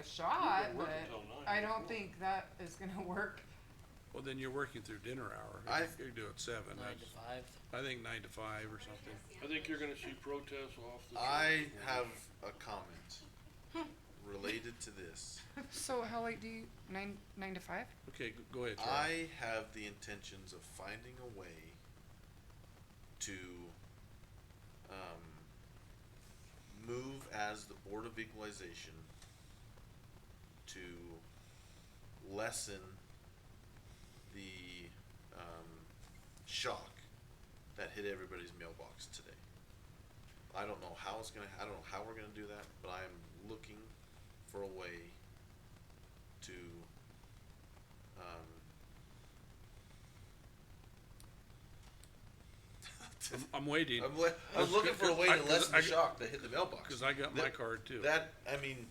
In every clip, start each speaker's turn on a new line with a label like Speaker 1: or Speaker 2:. Speaker 1: a shot,
Speaker 2: can work
Speaker 1: but
Speaker 2: until nine
Speaker 1: I
Speaker 2: if you
Speaker 1: don't
Speaker 2: want.
Speaker 1: think that is gonna work.
Speaker 3: Well, then you're working through dinner hour.
Speaker 4: I-
Speaker 3: You could do it seven.
Speaker 5: Nine to
Speaker 3: That's-
Speaker 5: five.
Speaker 3: I think nine to five or something.
Speaker 2: I think you're gonna see protests off the.
Speaker 4: I
Speaker 2: charts.
Speaker 4: have a comment related to this.
Speaker 1: So how late do you, nine, nine to five?
Speaker 3: Okay, g- go ahead, Charlie.
Speaker 4: I have the intentions of finding a way to um, move as the Board of Equalization to lessen the um, shock that hit everybody's mailbox today. I don't know how it's gonna. I don't know how we're gonna do that, but I'm looking for a way to um,
Speaker 3: I'm, I'm waiting,
Speaker 4: I'm, le- I'm
Speaker 3: That's
Speaker 4: looking
Speaker 3: good,
Speaker 4: for a
Speaker 3: 'cause
Speaker 4: way
Speaker 3: I-
Speaker 4: to
Speaker 3: 'cause
Speaker 4: lessen
Speaker 3: I
Speaker 4: the
Speaker 3: got-
Speaker 4: shock that hit the mailbox.
Speaker 3: cause I got my
Speaker 4: That-
Speaker 3: card too.
Speaker 4: That I mean,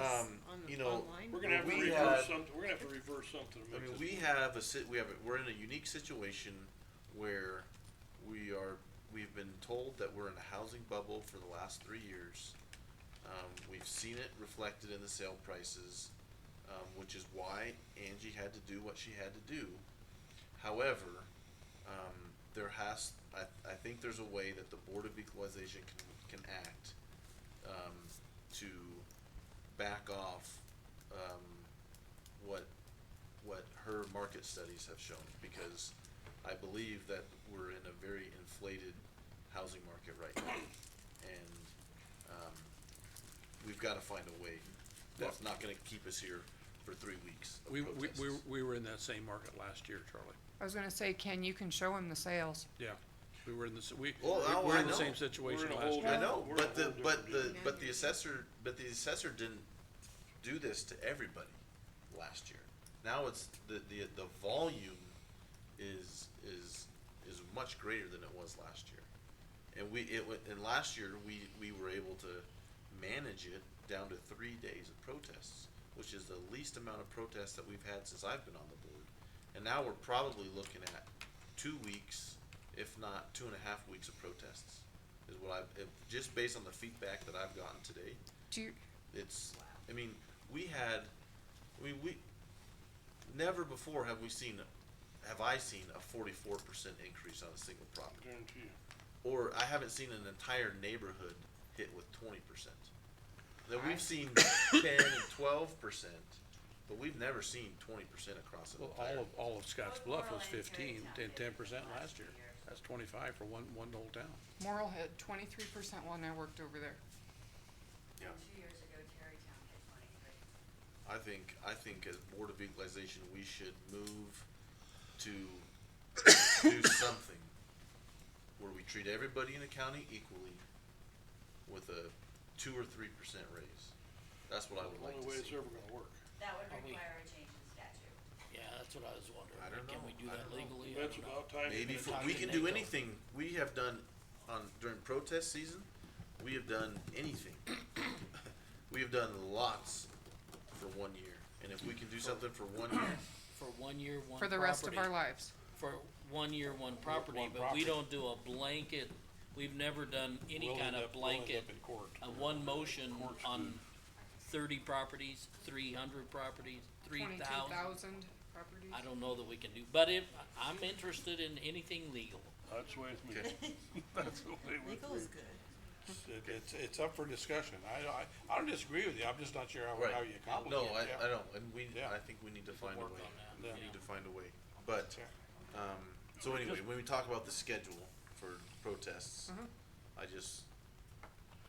Speaker 6: Oh,
Speaker 4: um, you know,
Speaker 2: We're gonna have to
Speaker 4: We
Speaker 2: reverse
Speaker 4: had-
Speaker 2: something, we're gonna have to reverse something to
Speaker 4: I
Speaker 2: make
Speaker 4: mean,
Speaker 2: this.
Speaker 4: we
Speaker 2: work.
Speaker 4: have a sit. We have a, we're in a unique situation where we are. We've been told that we're in a housing bubble for the last three years. Um, we've seen it reflected in the sale prices, um, which is why Angie had to do what she had to do. However, um, there has. I, I think there's a way that the Board of Equalization can can act um, to back off um, what what her market studies have shown because I believe that we're in a very inflated housing market right now. And um, we've got to find a way that's not going to keep us here for three weeks of
Speaker 3: We, we,
Speaker 4: protests.
Speaker 3: we, we were in that same market last year, Charlie.
Speaker 1: I was gonna say, Ken, you can show him the sales.
Speaker 3: Yeah, we were in the, s- we, we
Speaker 4: Well, oh,
Speaker 3: were
Speaker 4: I
Speaker 3: in the
Speaker 4: know.
Speaker 3: same
Speaker 2: We're
Speaker 3: situation
Speaker 2: in a
Speaker 3: last
Speaker 2: whole-
Speaker 3: year.
Speaker 4: I know,
Speaker 2: We're in a
Speaker 4: but the
Speaker 2: whole
Speaker 4: but the
Speaker 2: different
Speaker 4: but the assessor but the assessor didn't do this to everybody last year. Now it's the the the volume is is is much greater than it was last year. And we it wa- and last year we we were able to manage it down to 3 days of protests, which is the least amount of protests that we've had since I've been on the board. And now we're probably looking at 2 weeks if not two and a half weeks of protests is what I've, if, just based on the feedback that I've gotten today,
Speaker 1: Do you,
Speaker 4: it's, I mean, we had, I mean, we, never before have we seen, have I seen a forty-four percent increase on a single
Speaker 2: I
Speaker 4: property.
Speaker 2: Guarantee you.
Speaker 4: Or I haven't seen an entire neighborhood hit with twenty percent. That
Speaker 1: Alright.
Speaker 4: we've seen ten and twelve percent, but we've never seen twenty percent across an
Speaker 3: Well,
Speaker 4: entire.
Speaker 3: all of, all of Scotts Bluff was
Speaker 7: Overall, in Perry
Speaker 3: fifteen, ten,
Speaker 7: Township,
Speaker 3: ten percent
Speaker 7: last
Speaker 3: last year.
Speaker 7: year.
Speaker 3: That's twenty-five for one, one whole town.
Speaker 1: Morrill had twenty-three percent when I worked over there.
Speaker 4: Yeah.
Speaker 7: Two years ago, Tarrytown had twenty-three.
Speaker 4: I think, I think as Board of Equalization, we should move to do something where we treat everybody in the county equally with a two or three percent raise. That's what I would
Speaker 2: The
Speaker 4: like
Speaker 2: only way
Speaker 4: to
Speaker 2: it's
Speaker 4: see.
Speaker 2: ever gonna work.
Speaker 7: That would
Speaker 5: Are we-
Speaker 7: require a change in statute.
Speaker 5: Yeah, that's what I was wondering.
Speaker 4: I don't
Speaker 5: Can we
Speaker 4: know.
Speaker 5: do
Speaker 4: I
Speaker 5: that
Speaker 4: don't know.
Speaker 5: legally? I
Speaker 2: That's
Speaker 5: don't know.
Speaker 2: about time.
Speaker 4: Maybe,
Speaker 5: Maybe
Speaker 4: for-
Speaker 5: talk
Speaker 4: we
Speaker 5: to
Speaker 4: can do
Speaker 5: Nate, though.
Speaker 4: anything, we have done, on, during protest season, we have done anything. We have done lots for one year, and if we can do something for one year,
Speaker 5: For one year, one property.
Speaker 1: For the rest of our lives.
Speaker 5: For one year, one property,
Speaker 2: one
Speaker 5: but
Speaker 2: property.
Speaker 5: we don't do a blanket, we've never done any
Speaker 2: We'll
Speaker 5: kind
Speaker 2: end
Speaker 5: of
Speaker 2: up- we'll end
Speaker 5: blanket,
Speaker 2: up in court.
Speaker 5: a one motion
Speaker 2: Court's
Speaker 5: on
Speaker 2: good.
Speaker 5: thirty properties, three hundred properties, three
Speaker 1: Twenty-two
Speaker 5: thousand.
Speaker 1: thousand properties.
Speaker 5: I don't know that we can do, but if, I'm interested in anything legal.
Speaker 2: That's the way it's me. That's the way it would be.
Speaker 6: Legal is good.
Speaker 3: It, it's, it's up for discussion. I, I, I don't disagree with you. I'm just not sure how,
Speaker 4: Right.
Speaker 3: how you accomplish
Speaker 4: No,
Speaker 3: it.
Speaker 4: I, I don't, and we,
Speaker 3: Yeah.
Speaker 4: I think we need to find a
Speaker 5: work
Speaker 4: way,
Speaker 5: on
Speaker 3: that,
Speaker 4: we
Speaker 5: yeah.
Speaker 4: need to find a way, but, um, so anyway, when we talk about the schedule for protests,
Speaker 3: Mm-hmm.
Speaker 1: Mhm.
Speaker 4: I just,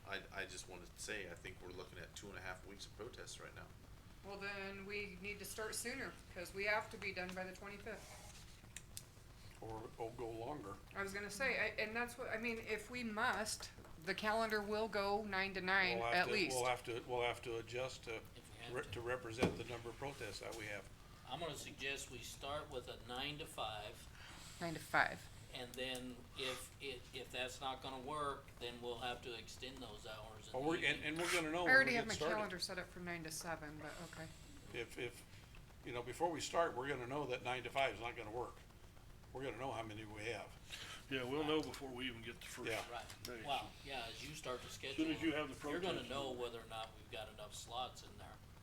Speaker 4: I, I just wanna say, I think we're looking at two and a half weeks of protests right now.
Speaker 1: Well, then we need to start sooner, cause we have to be done by the twenty-fifth.
Speaker 3: Or, or go longer.
Speaker 1: I was gonna say, I, and that's what, I mean, if we must, the calendar will go nine to nine
Speaker 3: We'll have
Speaker 1: at
Speaker 3: to-
Speaker 1: least.
Speaker 3: We'll have to, we'll have to adjust to,
Speaker 5: we have
Speaker 3: re-
Speaker 5: to.
Speaker 3: to represent the number of protests that we have.
Speaker 5: I'm gonna suggest we start with a nine to five,
Speaker 1: Nine to five.
Speaker 5: and then if, if, if that's not gonna work, then we'll have to extend those hours
Speaker 3: But
Speaker 5: in the
Speaker 3: we're, and,
Speaker 5: evening.
Speaker 3: and we're gonna know
Speaker 1: I
Speaker 3: when
Speaker 1: already
Speaker 3: we
Speaker 1: have my
Speaker 3: Oh, get started.
Speaker 1: calendar set up for nine to seven, but okay.
Speaker 3: If, if, you know, before we start, we're gonna know that nine to five is not gonna work. We're gonna know how many we have.
Speaker 2: Yeah, we'll know before we even get the first.
Speaker 3: Yeah.
Speaker 5: Right,
Speaker 2: There you
Speaker 5: wow, yeah, as you start to schedule.
Speaker 2: Soon as you have the
Speaker 5: You're gonna
Speaker 2: protest.
Speaker 5: know whether or not we've got enough slots in there.